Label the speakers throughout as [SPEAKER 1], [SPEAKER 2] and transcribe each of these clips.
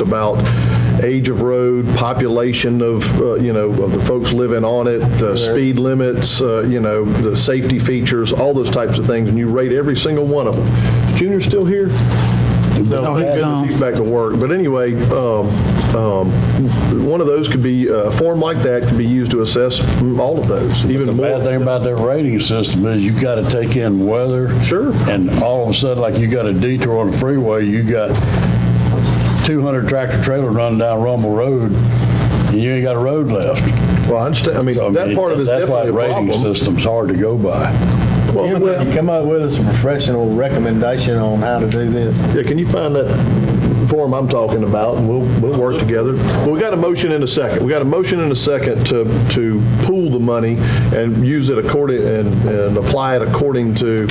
[SPEAKER 1] about age of road, population of, uh, you know, of the folks living on it, the speed limits, uh, you know, the safety features, all those types of things, and you rate every single one of them. Junior still here?
[SPEAKER 2] No, he's gone.
[SPEAKER 1] He's back to work. But anyway, um, um, one of those could be, uh, a form like that could be used to assess all of those, even more.
[SPEAKER 2] Bad thing about their rating system is you gotta take in weather.
[SPEAKER 1] Sure.
[SPEAKER 2] And all of a sudden, like you got a detour on the freeway, you got two hundred tractor trailer running down Rumble Road, and you ain't got a road left.
[SPEAKER 1] Well, I understand, I mean,
[SPEAKER 2] So, I
[SPEAKER 1] that
[SPEAKER 2] mean,
[SPEAKER 1] part of it is definitely a
[SPEAKER 2] That's why
[SPEAKER 1] problem.
[SPEAKER 2] the rating system's hard to go by.
[SPEAKER 1] Well,
[SPEAKER 3] You're going to come up with us a professional recommendation on how to do this.
[SPEAKER 1] Yeah, can you find that form I'm talking about, and we'll, we'll work together. But we got a motion in a second. We got a motion in a second to, to pool the money and use it according, and, and apply it according to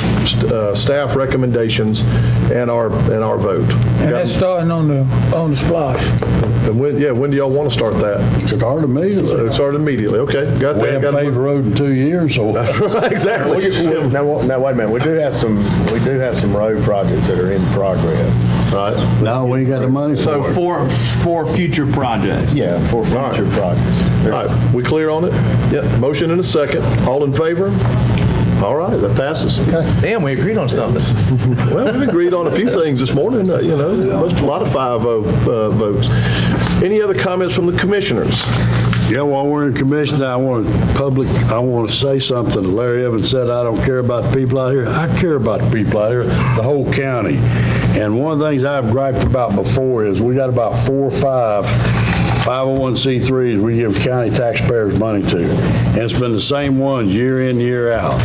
[SPEAKER 1] uh, staff recommendations and our, and our vote.
[SPEAKER 4] And that's starting on the, on the splash.
[SPEAKER 1] And when, yeah, when do y'all want to start that?
[SPEAKER 2] It's hard to measure.
[SPEAKER 1] It
[SPEAKER 2] We
[SPEAKER 1] started immediately, okay, got that.
[SPEAKER 2] haven't
[SPEAKER 1] got
[SPEAKER 2] paved the
[SPEAKER 1] it.
[SPEAKER 2] road in two years, so
[SPEAKER 1] Exactly.
[SPEAKER 3] Now, wa- now, wait a minute, we do have some, we do have some road projects that are in progress.
[SPEAKER 1] Right.
[SPEAKER 2] now we ain't got the money
[SPEAKER 5] So
[SPEAKER 2] for it.
[SPEAKER 5] for, for future projects.
[SPEAKER 3] Yeah, for future projects.
[SPEAKER 1] All right, we clear on it? Yep. Motion in a second. All in favor? All right, that passes.
[SPEAKER 6] Damn, we agreed on something.
[SPEAKER 1] Well, we agreed on a few things this morning, uh, you know, most, a lot of five oh, uh, votes. Any other comments from the commissioners?
[SPEAKER 2] Yeah, while we're in commission, I want to public, I want to say something. Larry Evans said, I don't care about the people out here. I care about the people out here, the whole county. And one of the things I've griped about before is we got about four or five 501c3s we give county taxpayers money to. And it's been the same ones year in, year out.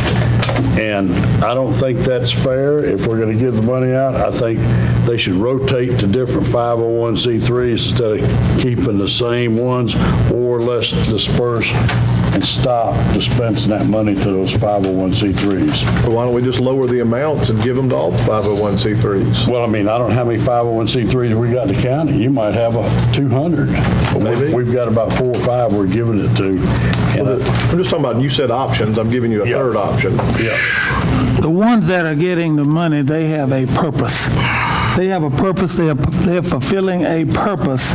[SPEAKER 2] And I don't think that's fair. If we're going to give the money out, I think they should rotate to different 501c3s instead of keeping the same ones or let's disperse and stop dispensing that money to those 501c3s.
[SPEAKER 1] Why don't we just lower the amounts and give them to all five oh one C threes?
[SPEAKER 2] Well, I mean, I don't know how many 501c3s we got in the county. You might have a 200. But we-
[SPEAKER 1] Maybe.
[SPEAKER 2] We've got about four or five we're giving it to. And I-
[SPEAKER 1] I'm just talking about, you said options, I'm giving you a
[SPEAKER 2] Yeah.
[SPEAKER 1] third option.
[SPEAKER 2] Yeah.
[SPEAKER 4] The ones that are getting the money, they have a purpose. They have a purpose, they are, they're fulfilling a purpose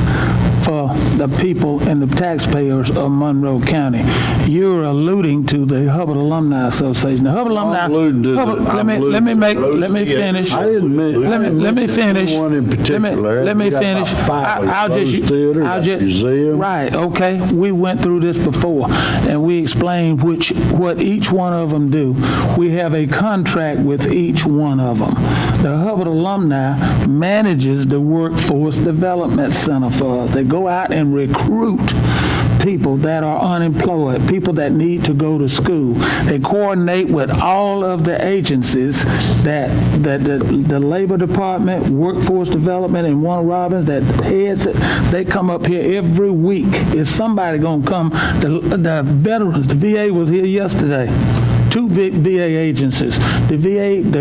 [SPEAKER 4] for the people and the taxpayers of Monroe County. You're alluding to the Hubbard Alumni Association. The Hubbard Alumni.
[SPEAKER 2] I'm alluding to the-
[SPEAKER 4] Hubbard-
[SPEAKER 2] I'm
[SPEAKER 4] Let me,
[SPEAKER 2] alluding
[SPEAKER 4] let me
[SPEAKER 2] to
[SPEAKER 4] make,
[SPEAKER 1] Rose
[SPEAKER 4] let me
[SPEAKER 1] Theater.
[SPEAKER 4] finish.
[SPEAKER 2] I didn't men-
[SPEAKER 4] Let me,
[SPEAKER 2] I didn't
[SPEAKER 4] let me
[SPEAKER 2] mention
[SPEAKER 4] finish.
[SPEAKER 2] anyone in
[SPEAKER 4] Let me-
[SPEAKER 2] particular.
[SPEAKER 4] Let me
[SPEAKER 2] We got about
[SPEAKER 4] finish.
[SPEAKER 2] five.
[SPEAKER 4] I- I'll just.
[SPEAKER 2] Rose Theater,
[SPEAKER 4] I'll
[SPEAKER 2] got
[SPEAKER 4] just-
[SPEAKER 2] museum.
[SPEAKER 4] Right, okay, we went through this before, and we explained which, what each one of them do. We have a contract with each one of them. The Hubbard alumni manages the Workforce Development Center for us. They go out and recruit people that are unemployed, people that need to go to school. They coordinate with all of the agencies that, that the, the Labor Department, Workforce Development, and Warner Robins that heads it. They come up here every week. Is somebody gonna come? The, the veterans, the VA was here yesterday. Two big VA agencies. The VA, the